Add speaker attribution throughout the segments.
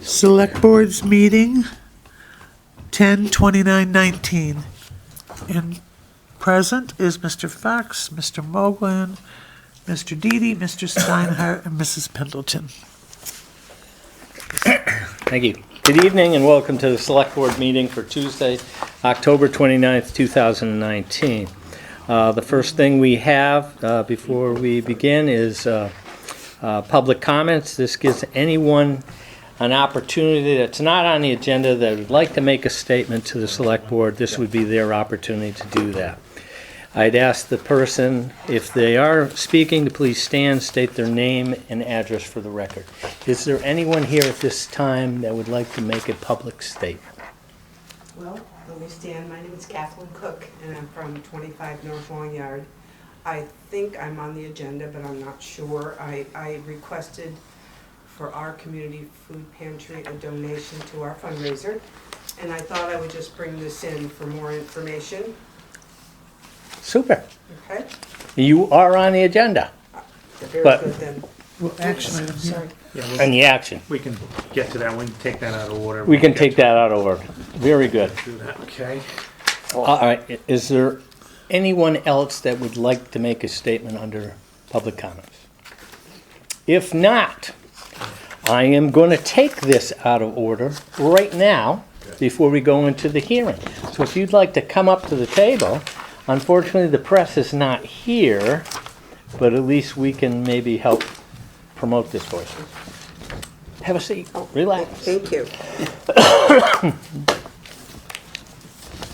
Speaker 1: Select Board's meeting, 10/29/19. And present is Mr. Fox, Mr. Moglen, Mr. Deedy, Mr. Steinhardt, and Mrs. Pendleton.
Speaker 2: Thank you. Good evening and welcome to the Select Board meeting for Tuesday, October 29th, 2019. Uh, The first thing we have uh, before we begin is uh, uh, public comments. This gives anyone an opportunity that's not on the agenda that would like to make a statement to the Select Board. This would be their opportunity to do that. I'd ask the person, if they are speaking, to please stand, state their name and address for the record. Is there anyone here at this time that would like to make a public statement?
Speaker 3: Well, let me stand. My name is Kathleen Cook, and I'm from 25 North Long Yard. I think I'm on the agenda, but I'm not sure. I, I requested for our community food pantry a donation to our fundraiser, and I thought I would just bring this in for more information,
Speaker 2: Super.
Speaker 3: okay?
Speaker 2: You are on the agenda
Speaker 3: Very
Speaker 2: But-
Speaker 3: good then.
Speaker 1: Well, actually,
Speaker 3: Sorry.
Speaker 2: and the action.
Speaker 4: We can get to that, we can take that out of order.
Speaker 2: We can take that out over. Very good.
Speaker 4: Do that, okay?
Speaker 2: All right, i- is there anyone else that would like to make a statement under public comments? If not, I am going to take this out of order right now before we go into the hearing. So if you'd like to come up to the table, unfortunately, the press is not here, but at least we can maybe help promote this for you. Have a seat, relax.
Speaker 3: Thank you.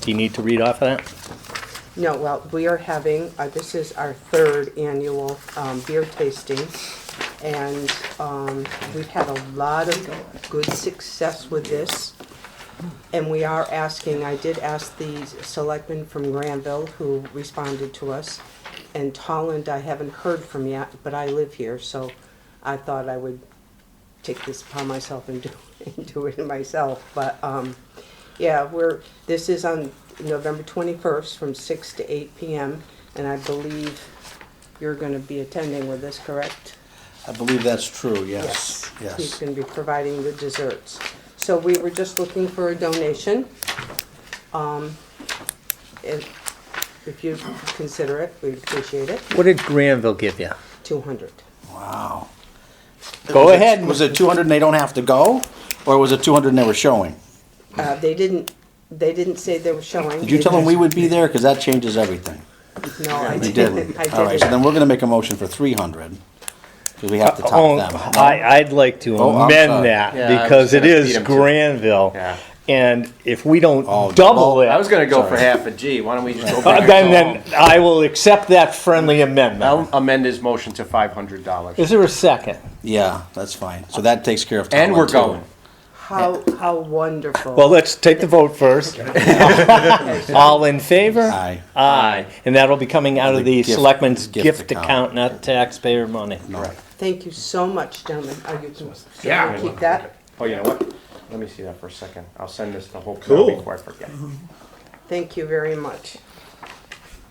Speaker 2: Do you need to read off of that?
Speaker 3: No, well, we are having, uh, this is our third annual um, beer tasting, and um, we've had a lot of good success with this. And we are asking, I did ask the selectman from Granville who responded to us, and Tolland I haven't heard from yet, but I live here, so I thought I would take this upon myself and do, and do it myself, but, um, yeah, we're, this is on November twenty-first from six to eight PM, and I believe you're gonna be attending with this, correct?
Speaker 5: I believe that's true, yes,
Speaker 3: He's
Speaker 5: yes.
Speaker 3: gonna be providing the desserts. So we were just looking for a donation. Um, if, if you consider it, we'd appreciate it,
Speaker 2: What did Granville give you?
Speaker 3: two hundred.
Speaker 5: Wow.
Speaker 2: Go
Speaker 5: Was it-
Speaker 2: ahead.
Speaker 5: Was it two hundred and they don't have to go, or was it two hundred and they were showing?
Speaker 3: Uh, they didn't, they didn't say they were showing.
Speaker 5: Did you
Speaker 3: They
Speaker 5: tell them
Speaker 3: just-
Speaker 5: we would be there, because that changes everything?
Speaker 3: No, I
Speaker 5: You
Speaker 3: didn't,
Speaker 5: didn't?
Speaker 3: I
Speaker 5: All right, so then
Speaker 3: didn't.
Speaker 5: we're gonna make a motion for three hundred, because we have to
Speaker 2: Oh,
Speaker 5: top them.
Speaker 2: I, I'd like to
Speaker 5: Oh, I'm
Speaker 2: amend
Speaker 5: sorry.
Speaker 2: that
Speaker 6: Yeah, I was
Speaker 2: because it
Speaker 6: gonna feed
Speaker 2: is
Speaker 6: 'em to-
Speaker 2: Granville.
Speaker 6: Yeah.
Speaker 2: And if we don't
Speaker 5: Oh,
Speaker 2: double
Speaker 5: well,
Speaker 2: it,
Speaker 6: I was gonna go for
Speaker 5: Sorry.
Speaker 6: half a G. Why don't we just go
Speaker 2: uh,
Speaker 6: back?
Speaker 2: then,
Speaker 6: to-
Speaker 2: then I will accept that friendly
Speaker 6: I'll
Speaker 2: amendment.
Speaker 6: amend his motion to five hundred dollars.
Speaker 2: Is there a second?
Speaker 5: Yeah, that's fine, so that takes care of Tom.
Speaker 6: And we're going.
Speaker 3: How, how wonderful.
Speaker 2: Well, let's take the vote first. All in favor?
Speaker 5: Aye.
Speaker 2: Aye. And that'll be coming out of the
Speaker 5: The gift-
Speaker 2: selectmen's
Speaker 5: gift
Speaker 2: gift
Speaker 5: account.
Speaker 2: account, not taxpayer money.
Speaker 5: Right.
Speaker 3: Thank you so much, gentlemen. Oh, you can
Speaker 6: Yeah.
Speaker 3: keep that.
Speaker 6: Oh, you know what? Let me see that for a second. I'll send this the whole copy before I forget.
Speaker 3: Thank you very much.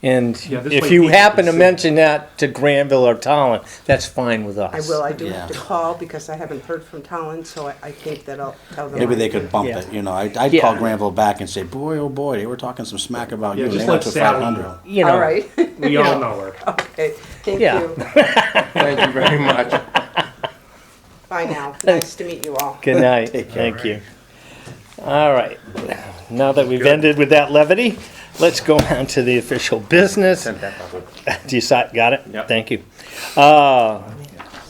Speaker 2: And
Speaker 4: Yeah, this
Speaker 2: if
Speaker 4: way
Speaker 2: you
Speaker 4: people
Speaker 2: happen
Speaker 4: can
Speaker 2: to
Speaker 4: see.
Speaker 2: mention that to Granville or Tolland, that's fine with
Speaker 3: I
Speaker 2: us.
Speaker 3: will, I do have to
Speaker 5: Yeah.
Speaker 3: call because I haven't heard from Talon, so I, I think that I'll tell them.
Speaker 5: Maybe
Speaker 3: I-
Speaker 5: they could bump
Speaker 2: Yeah.
Speaker 5: it, you know, I- I'd
Speaker 2: Yeah.
Speaker 5: call Granville back and say, boy, oh boy, they were talking some smack about
Speaker 4: Yeah,
Speaker 5: you, and
Speaker 4: just
Speaker 5: they went
Speaker 4: let
Speaker 5: to
Speaker 4: Sally
Speaker 5: five hundred.
Speaker 2: You know.
Speaker 3: All right,
Speaker 4: We all know her.
Speaker 3: okay, thank
Speaker 2: Yeah.
Speaker 3: you.
Speaker 6: Thank you very much.
Speaker 3: Bye now. Nice to meet you all.
Speaker 2: Good night. Thank you. All right. Now that we've ended with that levity, let's go on to the official business.
Speaker 6: Send that over.
Speaker 2: Do you si- got it?
Speaker 6: Yep.
Speaker 2: Thank you. Uh,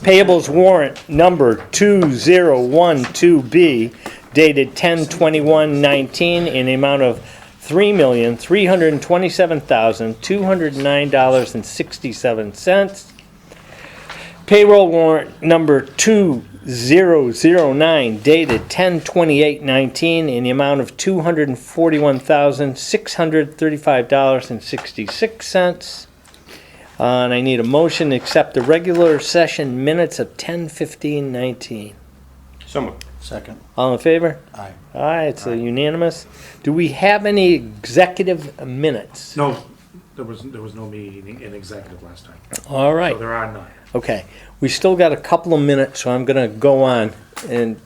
Speaker 2: Payables warrant number 2012B dated 10/21/19 in the amount of $3,327,209.67. Payroll warrant number 2009 dated 10/28/19 in the amount of $241,635.66. Uh, And I need a motion to accept the regular session minutes of 10:15:19.
Speaker 6: Someone.
Speaker 5: Second,
Speaker 2: All in favor?
Speaker 5: aye.
Speaker 2: Aye, it's uh, unanimous. Do we have any executive minutes?
Speaker 4: No, there was, there was no meeting in executive last time,
Speaker 2: All right,
Speaker 4: so there are none.
Speaker 2: okay. We still got a couple of minutes, so I'm going to go on and